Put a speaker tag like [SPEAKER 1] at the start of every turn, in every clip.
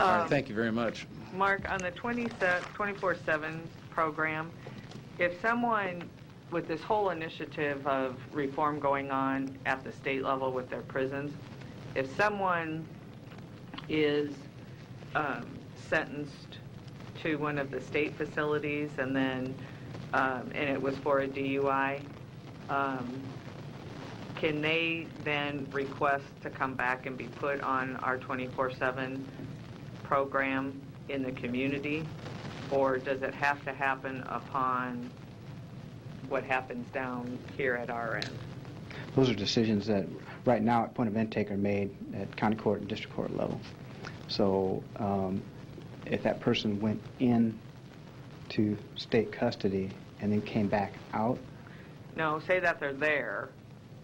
[SPEAKER 1] All
[SPEAKER 2] Um,
[SPEAKER 1] right, thank you very much.
[SPEAKER 2] Mark, on the 20 se- 24/7 program, if someone with this whole initiative of reform going on at the state level with their prisons, if someone is um, sentenced to one of the state facilities and then, um, and it was for a DUI, um, can they then request to come back and be put on our 24/7 program in the community? Or does it have to happen upon what happens down here at our end?
[SPEAKER 3] Those are decisions that, right now, at point of intake, are made at county court and district court level. So um, if that person went in to state custody and then came back out,
[SPEAKER 2] No, say that they're there,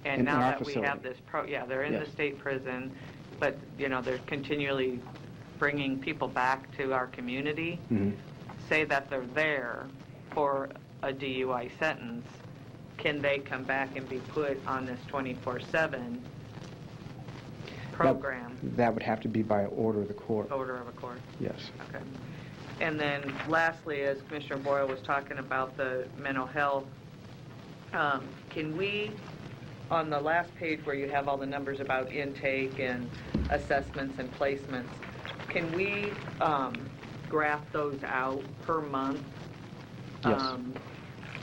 [SPEAKER 2] and
[SPEAKER 3] In- in
[SPEAKER 2] now
[SPEAKER 3] our
[SPEAKER 2] that we have
[SPEAKER 3] facility.
[SPEAKER 2] this pro, yeah, they're in the
[SPEAKER 3] Yes.
[SPEAKER 2] state prison, but, you know, they're continually bringing people back to our community.
[SPEAKER 3] Mhm.
[SPEAKER 2] Say that they're there for a DUI sentence, can they come back and be put on this 24/7 program?
[SPEAKER 3] that would have to be by order of the court.
[SPEAKER 2] Order of a court,
[SPEAKER 3] Yes.
[SPEAKER 2] okay. And then lastly, as Commissioner Boyle was talking about the mental health, um, can we, on the last page where you have all the numbers about intake and assessments and placements, can we um, graph those out per month?
[SPEAKER 3] Yes.
[SPEAKER 2] Um,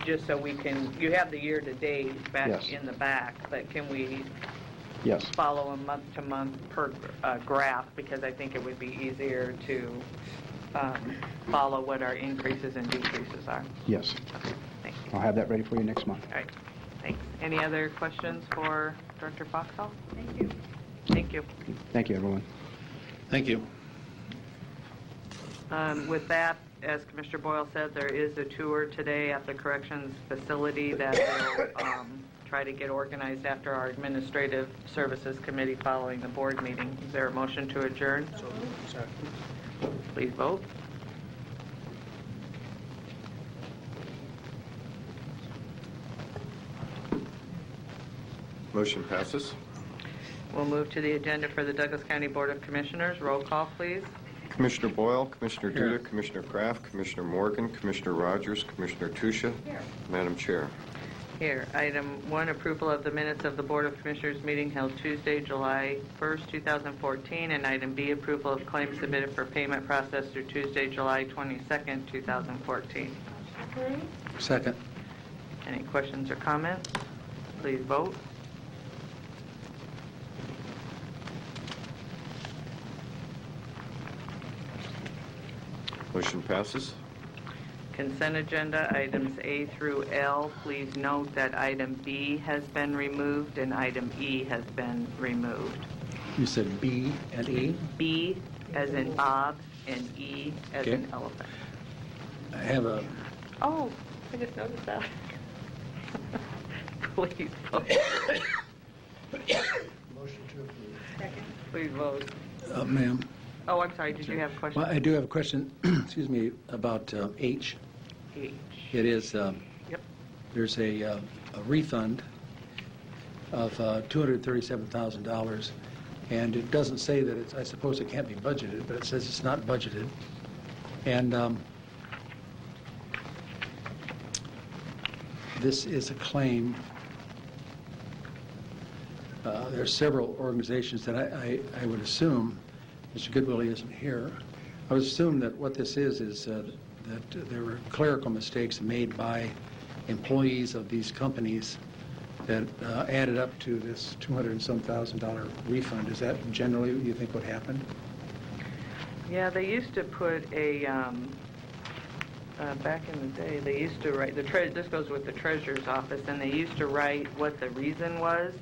[SPEAKER 2] Just so we can, you have the year-to-date back
[SPEAKER 3] Yes.
[SPEAKER 2] in the back, but can we
[SPEAKER 3] Yes.
[SPEAKER 2] follow a month-to-month per uh, graph, because I think it would be easier to um, follow what our increases and decreases are.
[SPEAKER 3] Yes.
[SPEAKER 2] Thank you.
[SPEAKER 3] I'll have that ready for you next month.
[SPEAKER 2] All right, thanks. Any other questions for Director Foxall? Thank you. Thank you.
[SPEAKER 3] Thank you, everyone.
[SPEAKER 1] Thank you.
[SPEAKER 2] Um, With that, as Commissioner Boyle said, there is a tour today at the corrections facility that will um, try to get organized after our Administrative Services Committee following the board meeting. Is there a motion to adjourn? Please vote.
[SPEAKER 4] Motion passes.
[SPEAKER 2] We'll move to the agenda for the Douglas County Board of Commissioners. Roll call, please.
[SPEAKER 4] Commissioner Boyle, Commissioner
[SPEAKER 1] Here.
[SPEAKER 4] Duda, Commissioner Kraft, Commissioner Morgan, Commissioner Rogers, Commissioner Tusha. Madam Chair.
[SPEAKER 2] Here, item one, approval of the minutes of the Board of Commissioners meeting held Tuesday, July 1st, 2014, and item B, approval of claims submitted for payment process through Tuesday, July 22nd, 2014.
[SPEAKER 1] Second.
[SPEAKER 2] Any questions or comments? Please vote.
[SPEAKER 4] Motion passes.
[SPEAKER 2] Consent agenda, items A through L. Please note that item B has been removed and item E has been removed.
[SPEAKER 1] You said B and E?
[SPEAKER 2] B as in Bob and E as
[SPEAKER 1] Okay.
[SPEAKER 2] in elephant.
[SPEAKER 1] I have a,
[SPEAKER 2] Oh, I just noticed that. Please vote. Please vote.
[SPEAKER 1] uh, ma'am.
[SPEAKER 2] Oh, I'm sorry, did you have a
[SPEAKER 1] Well, I
[SPEAKER 2] question?
[SPEAKER 1] do have a question, excuse me, about uh, H.
[SPEAKER 2] H.
[SPEAKER 1] It is, um,
[SPEAKER 2] Yep.
[SPEAKER 1] there's a uh, a refund of uh, $237,000, and it doesn't say that it's, I suppose it can't be budgeted, but it says it's not budgeted. And um, this is a claim. Uh, There are several organizations that I I I would assume, Mr. Goodwillie isn't here, I would assume that what this is, is uh, that there were clerical mistakes made by employees of these companies that uh, added up to this 200 and some thousand dollar refund. Is that generally what you think would happen?
[SPEAKER 2] Yeah, they used to put a, um, uh, back in the day, they used to write, the tre, this goes with the treasurer's office, and they used to write what the reason was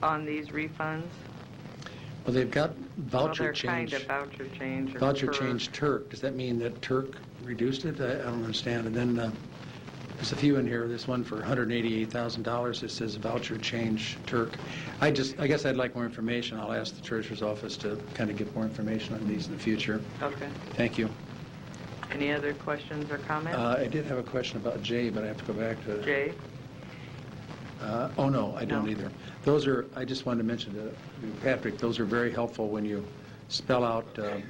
[SPEAKER 2] on these refunds.
[SPEAKER 1] Well, they've got
[SPEAKER 2] Well,
[SPEAKER 1] voucher change.
[SPEAKER 2] They're kind of voucher change or.
[SPEAKER 1] Voucher
[SPEAKER 2] per-
[SPEAKER 1] change Turk. Does that mean that Turk reduced it? I I don't understand. And then uh, there's a few in here, this one for $188,000. It says voucher change Turk. I just, I guess I'd like more information. I'll ask the treasurer's office to kind of get more information on these in the future.
[SPEAKER 2] Okay.
[SPEAKER 1] Thank you.
[SPEAKER 2] Any other questions or comments?
[SPEAKER 1] Uh, I did have a question about J, but I have to go back to...
[SPEAKER 2] Jay?
[SPEAKER 1] Uh, Oh, no, I don't
[SPEAKER 2] No.
[SPEAKER 1] either. Those are, I just wanted to mention to Patrick, those are very helpful when you spell out um,